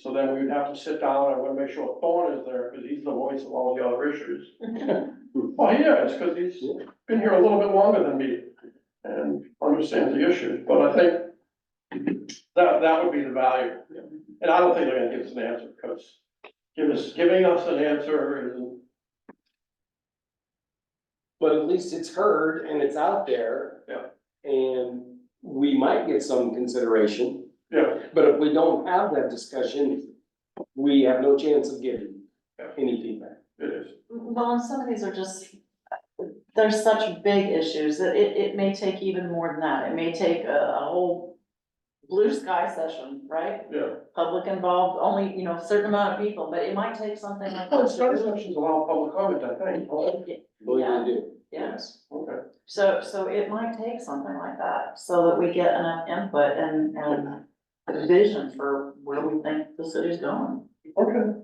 So then we would have to sit down, I wanna make sure Thorn is there, because he's the voice of all the other issues. Well, he is, because he's been here a little bit longer than me and understands the issue, but I think that, that would be the value. And I don't think they're gonna give us an answer, because give us, giving us an answer is But at least it's heard and it's out there. Yeah. And we might get some consideration, Yeah, but if we don't have that discussion, we have no chance of getting Yeah. any feedback. it is. Well, and some of these are just, they're such big issues that it, it may take even more than that. It may take a, a whole blue sky session, right? Yeah. Public involved, only, you know, a certain amount of people, but it might take something like Well, this. study sessions allow public comment, I think. huh? What do Yeah. you do? Yeah, Oh, Okay. so, so it might take something like that, so that we get enough input and, and a vision for where we think the city's going. Okay.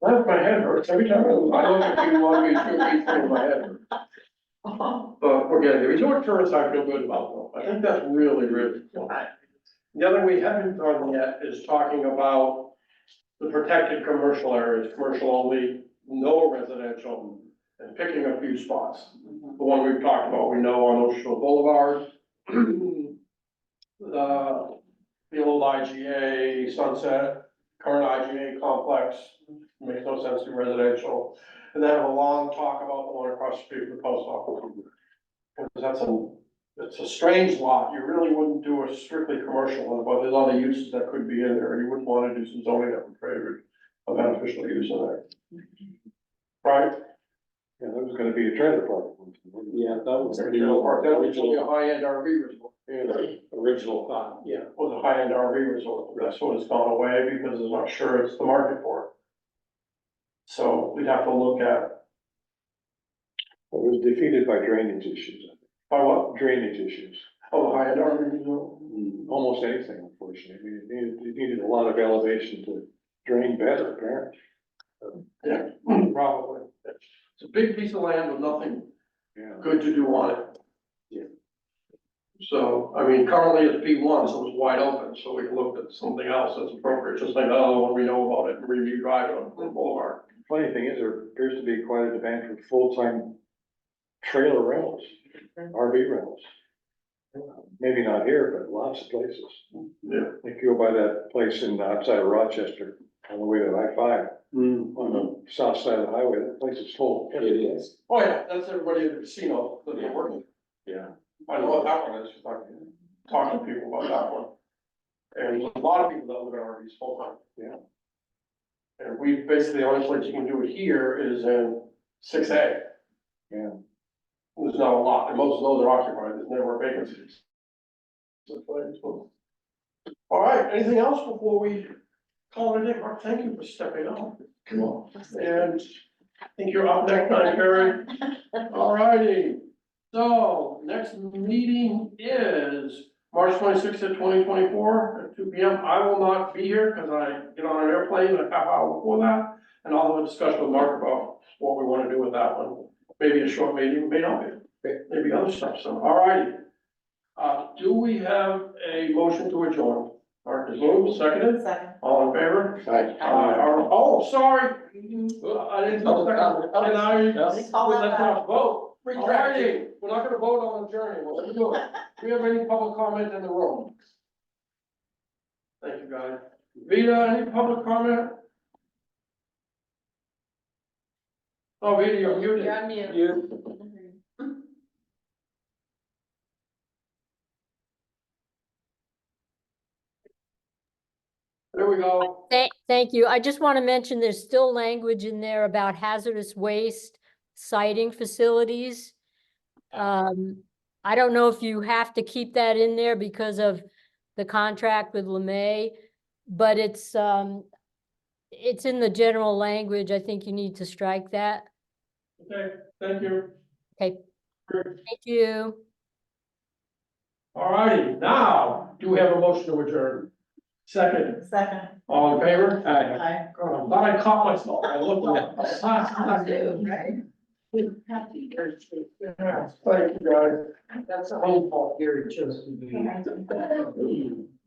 Well, my head hurts every time I look at you, I get two feet from my head. hurts. But we're getting there. Resort tourists I feel good about though. I think that's really, really cool. The other we haven't done yet is talking about the protected commercial areas, commercial only, no residential, and picking a few spots. the one we've talked about, we know on Ocean Shore Boulevard. uh, The, the old IGA Sunset, current IGA complex, makes no sense to residential. And then have a long talk about the one across the street from the post office. Because that's a, it's a strange lot, you really wouldn't do a strictly commercial one, but there's other uses that could be in there, you wouldn't wanna do some zoning that would create a beneficial use in there. Right? Yeah, that was gonna be a trailer park. Yeah, that was That pretty low. was really a high-end RV resort. Original thought, yeah. was a high-end RV resort, but that's what has gone away because it's not sure it's the market for it. So we'd have to look at, It was defeated by drainage issues, by what, drainage issues, oh, the high-end RV resort, almost anything unfortunately. I mean, it needed, it needed a lot of elevation to drain better, apparently. probably. It's a big piece of land with nothing Yeah. good to do on it. Yeah. So, I mean, currently it's B one, so it's wide open, so we looked at something else that's appropriate, just like the other one we know about it, Review Drive on Blue Boulevard. Funny thing is, there appears to be quite a demand for full-time trailer rentals, RV rentals. Maybe not here, but lots of places. Yeah. If you go by that place in, outside of Rochester, on the way to I five, on the south side of the highway, that place is full. It is. Oh, yeah, that's everybody in the casino that they're working Yeah. I know what that one is, because I talk to people about that one. And there's a lot of people that live in RVs full time. Yeah. And we, basically, the only place you can do it here is in six A. Yeah. There's not a lot, and most of those are occupied, there's never vacancies. So it's like, it's cool. All right, anything else before we call it a day, Mark, thank you for stepping up. Come on. And I think you're up next time, Barry. Alrighty, so next meeting is March twenty-sixth of twenty twenty-four at two P M. I will not be here because I get on an airplane a half hour before that. And I'll have a discussion with Mark about what we want to do with that one. Maybe a short meeting, may not be, Okay. maybe other stuff, so alrighty. Uh, do we have a motion to adjourn? Mark is moved, seconded, Second. all in favor? Right. Uh, are- oh, sorry, I didn't, and I. Yes. Call Well, that Let's back. not vote. Retract it. Alrighty, We're not gonna vote on the journey. What we doing? Do we have any public comment in the room? Thank you, guys. Vida, any public comment? Oh, Vida, you're muted. You're on mute. You. There we go. Thank, thank you. I just want to mention there's still language in there about hazardous waste siting facilities. Um, I don't know if you have to keep that in there because of the contract with LeMay, but it's, um, it's in the general language. I think you need to strike that. Okay, thank you. Thank you. All righty. now, do we have a motion to adjourn? Second, Second. all in favor? Aye. God, I'm glad I caught myself. I looked up. Right? Happy birthday. Yes, Thank you, guys. That's a whole. Thank you.